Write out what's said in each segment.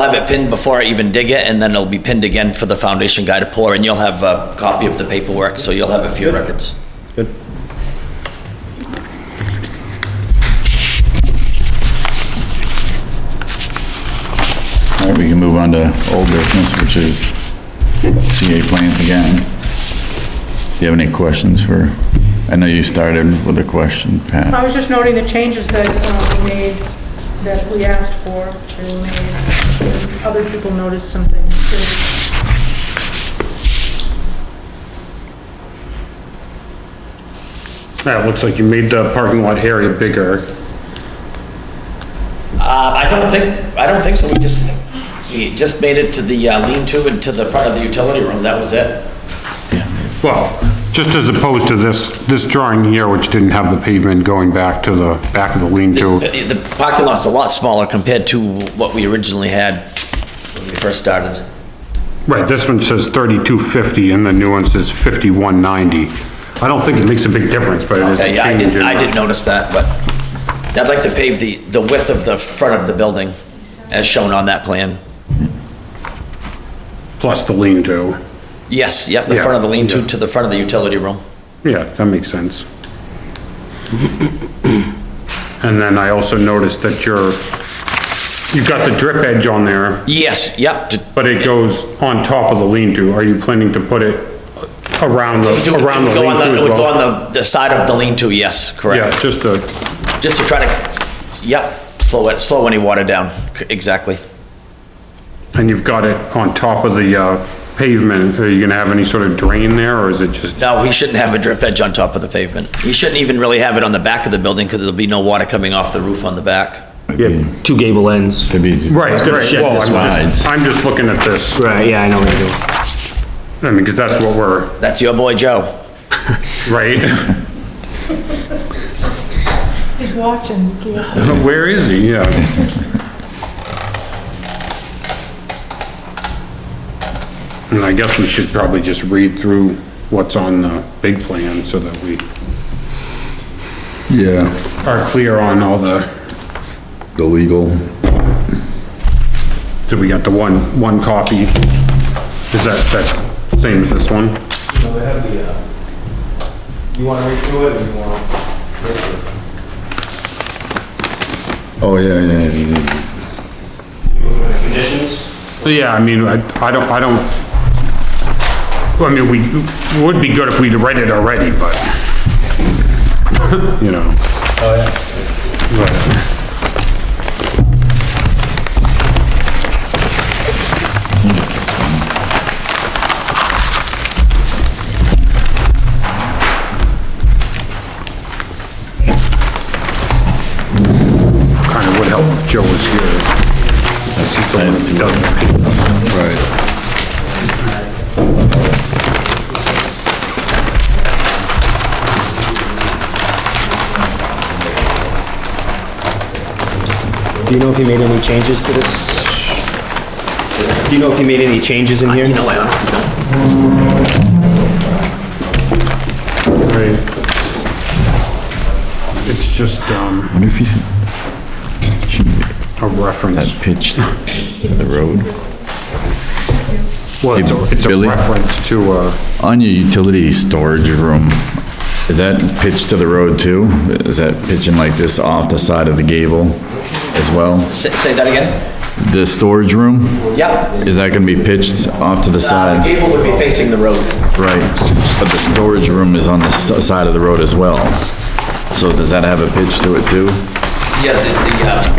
I'll have it pinned before I even dig it, and then it'll be pinned again for the foundation guy to pour, and you'll have a copy of the paperwork, so you'll have a few records. Good. All right, we can move on to old business, which is CA plant again. Do you have any questions for, I know you started with a question, Pat. I was just noting the changes that uh, we made, that we asked for, they were made. Other people noticed some things. Yeah, it looks like you made the parking lot area bigger. Uh, I don't think, I don't think so, we just, we just made it to the uh, lean-to and to the front of the utility room, that was it. Well, just as opposed to this, this drawing here, which didn't have the pavement going back to the back of the lean-to. The the parking lot's a lot smaller compared to what we originally had when we first started. Right, this one says thirty-two fifty and the new one says fifty-one ninety. I don't think it makes a big difference, but it is Okay, a yeah, I change did, in. I did notice that, but I'd like to pave the, the width of the front of the building as shown on that plan. Plus the lean-to. Yes, yep, the Yeah, front of the lean-to yeah. to the front of the utility room. Yeah, that makes sense. And then I also noticed that you're, you've got the drip edge on there, Yes, yep, to- but it goes on top of the lean-to. Are you planning to put it around the, to- it would around the go on lean-to It as would go on well? the, the side of the lean-to, yes, Yeah, correct. just a, Just to try to, yep, slow it, slow any water down, c- exactly. and you've got it on top of the uh, pavement. Are you gonna have any sort of drain there, or is it just, No, he shouldn't have a drip edge on top of the pavement. He shouldn't even really have it on the back of the building, because there'll be no water coming off the roof on the back. Yeah, two gable ends. Could be- right, It's gonna right, shed well, the I'm sides. just, I'm just looking at this, Right, yeah, I know what you're I mean, because that's what we're, That's your boy Joe. right? He's watching. It's Where is he? Yeah. And I guess we should probably just read through what's on the big plan so that we Yeah, are clear on all the, the legal. so we got the one, one copy. Is that, that same as this one? No, they have the, uh, you wanna read through it or you wanna? Oh, yeah, yeah, yeah, yeah. You want the Conditions? Yeah, I mean, I, I don't, I don't, well, I mean, we, it would be good if we'd read it already, but, you know. Oh, yeah. Kind of would help if Joe was here. That's just the one that doesn't. Right. doing. Do you know if you made any changes to this? Do you know if you made any changes Uh, in here? You know, I honestly don't. Right. It's just, um, What if you said, shouldn't be a reference. pitched to the road? Well, it's a, it's a Billy? reference to, uh, On your utility storage room, is that pitched to the road too? Is that pitching like this off the side of the gable as well? Say, say that again? The storage room, Yep. is that gonna be pitched off to the Uh, the side? gable would be facing the road. Right, but the storage room is on the s- side of the road as well. So does that have a pitch to it too? Yeah, the, the, uh,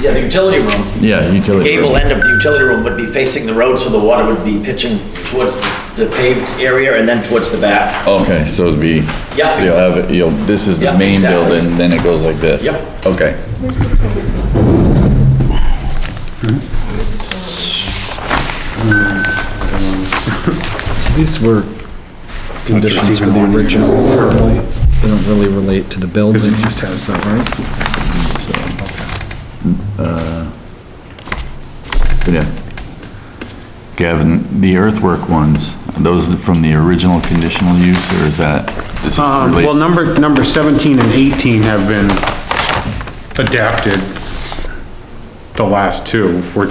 yeah, the utility room, Yeah, utility. gable room. end of the utility room would be facing the road, so the water would be pitching towards the paved area and then towards the back. Okay, so it'd be, Yeah. so you'll have, it- you'll, this is the Yeah, main exactly. building, then it goes like this? Yeah. Okay. These were conditions for the original, they don't really relate to the building. it just has that, right? Yeah. Gavin, the earthwork ones, are those from the original conditional use, or is that? this is Um, well, relates- number, number seventeen and eighteen have been adapted. the last two, which